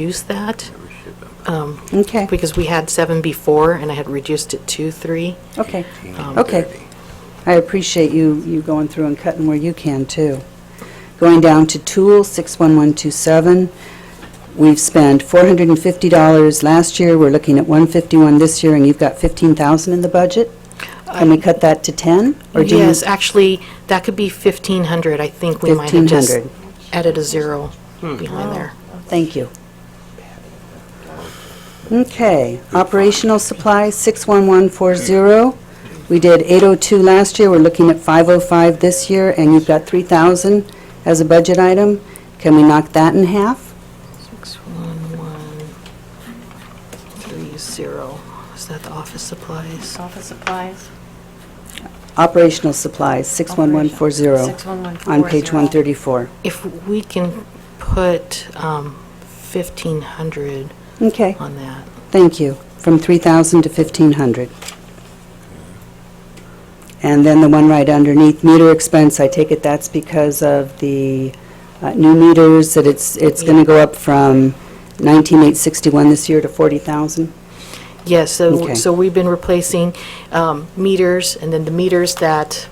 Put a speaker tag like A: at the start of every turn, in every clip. A: use that, um,
B: Okay,
A: because we had seven before, and I had reduced it to three.
B: okay, okay. I appreciate you, you going through and cutting where you can, too. Going down to Tool, 61127, we've spent $450 last year, we're looking at 151 this year, and you've got 15,000 in the budget? Can we cut that to 10? Or do you-
A: Yes, actually, that could be 1,500, I think we might have just
B: 1,500.
A: added a zero behind there.
B: Thank you. Okay, operational supplies, 61140. We did 802 last year, we're looking at 505 this year, and you've got 3,000 as a budget item. Can we knock that in half?
A: Six, one, one, three, zero. Is that the office supplies?
C: Office supplies.
B: Operational supplies, 61140.
C: 61140.
B: On page 134.
A: If we can put um, 1,500
B: Okay,
A: on that.
B: thank you. From 3,000 to 1,500. And then the one right underneath, meter expense, I take it that's because of the uh, new meters, that it's, it's going to go up from 19,861 this year to 40,000?
A: Yes, so,
B: Okay.
A: so we've been replacing um, meters, and then the meters that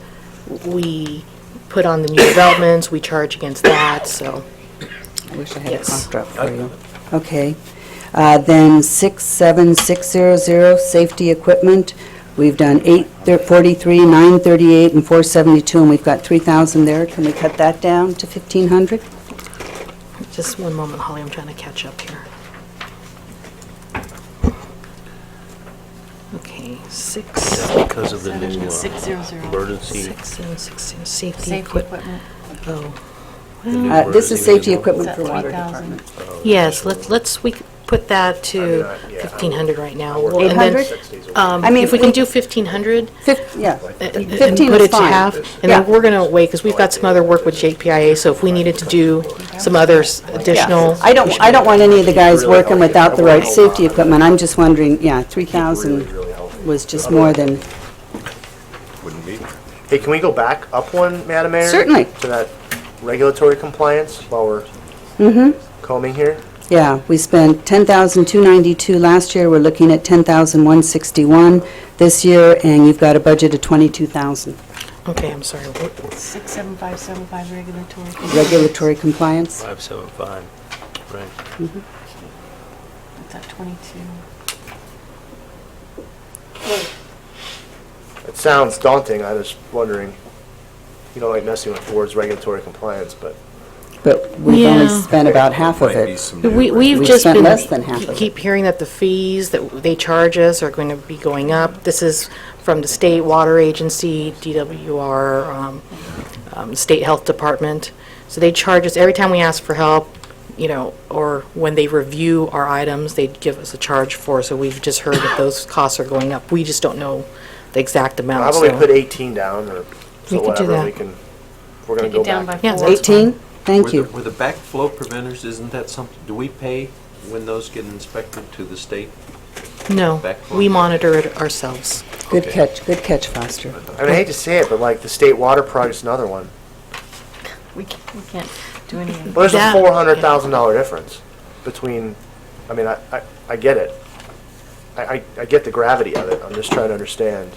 A: we put on the new developments, we charge against that, so.
B: I wish I had a
A: Yes.
B: cough drop for you. Okay. Uh, Then 67600, safety equipment, we've done 843, 938, and 472, and we've got 3,000 there. Can we cut that down to 1,500?
A: Just one moment, Holly, I'm trying to catch up here. Okay, six,
D: Because of the new uh,
C: 600.
D: emergency.
A: six, and sixteen, safety
C: Safety
A: equipment.
C: equipment.
A: Oh,
D: the new
B: Uh, This is
D: emergency
B: safety
D: manual.
B: equipment
C: Is
B: for
C: that
B: water
C: 3,000?
B: department.
A: oh, yes, let's, let's, we could put that to 1,500 right now. And then,
B: 800?
A: um,
B: I mean,
A: If we can
B: we-
A: do 1,500,
B: Fif- Yeah.
A: and- Uh, and
B: 15
A: put
B: is
A: it to
B: fine.
A: half, and
B: Yeah.
A: then we're going to wait, because we've got some other work with JPIA, so if we needed to do some others additional,
B: I don't, I don't want any of the guys working without the right safety equipment. I'm just wondering, yeah, 3,000 was just more than,
E: Hey, can we go back up one, Madam Mayor?
B: Certainly.
E: To that regulatory compliance while we're combing here?
B: yeah, we spent 10,292 last year, we're looking at 10,161 this year, and you've got a budget of 22,000.
A: okay, I'm sorry, what-
C: 67575 regulatory.
B: Regulatory compliance?
D: 575, right.
C: It's at 22.
E: It sounds daunting, I was wondering, you know, like messing with Ford's regulatory compliance, but
B: But we've only
A: Yeah.
B: spent about half of
F: Might be
B: it.
F: some new
A: We, we've
B: We
A: just
B: spent
A: been,
B: less than half of it.
A: keep hearing that the fees that they charge us are going to be going up. This is from the state water agency, DWR, um, um, state health department. So they charge us, every time we ask for help, you know, or when they review our items, they give us a charge for, so we've just heard that those costs are going up. We just don't know the exact amount,
E: I've only
A: so-
E: put 18 down or
A: We could
E: so
A: do
E: whatever,
A: that.
E: we can, we're gonna
C: Take
E: go
C: it down by
E: back.
A: Yeah,
C: four.
A: that's-
B: 18? Thank
F: Were the-
B: you.
F: Were the backflow preventers, isn't that something, do we pay when those get inspected to the state?
A: No,
F: Back
A: we
F: one.
A: monitor it ourselves.
B: Good
F: Okay.
B: catch, good catch, Foster.
E: I mean, I hate to say it, but like the state water project's another one.
C: We can't, we can't do any. of it.
E: Well, there's
A: That-
E: a $400,000 difference between, I mean, I, I- I get it. I, I- I get the gravity of it, I'm just trying to understand.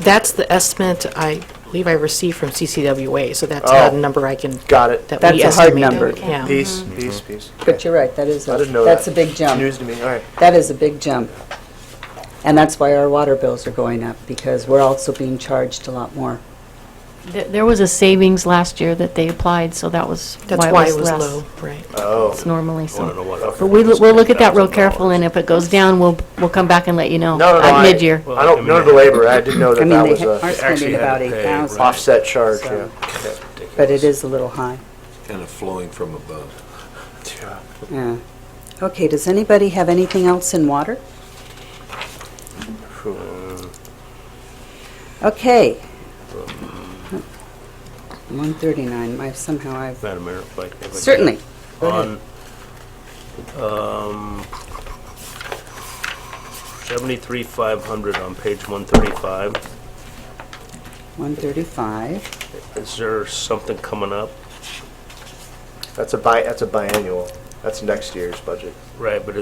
A: That's the estimate I believe I received from CCWA, so that's not a
E: Oh.
A: number I can
E: Got it.
A: that
B: That's
A: we
B: a hard
A: estimate.
B: number.
A: Yeah.
E: Piece,
G: Mm-hmm.
E: piece, piece.
B: But you're right, that is, a-
E: I didn't know that.
B: that's a big jump.
E: News to me, all right.
B: That is a big jump. And that's why our water bills are going up, because we're also being charged a lot more.
G: There there was a savings last year that they applied, so that was
A: That's
G: why
A: why
G: it was less.
A: low, right?
G: It's normally
F: I want to know
G: so.
F: what.
G: But we, we'll look at that real careful, and if it goes down, we'll, we'll come back and let you know.
E: No, no, no.
G: At
E: I-
G: mid-year.
E: I don't know the labor, I didn't know
B: I
E: that
B: mean,
E: that
B: they
E: was
B: ha- are
E: a
B: spending
F: actually had
B: about
F: to pay,
B: 8,000.
F: right.
E: offset charge,
B: So-
E: yeah.
B: But it is a little high,
F: Kind of flowing from above.
E: Yeah.
B: yeah. Okay, does anybody have anything else in water? Okay. 139, I somehow I've,
D: Madam Mayor, if I- if I could.
B: certainly. Go ahead.
D: On, um, 73,500 on page 135,
B: 135,
D: is there something coming up?
E: That's a bi, that's a biannual.
H: That's next year's budget.
E: Right, but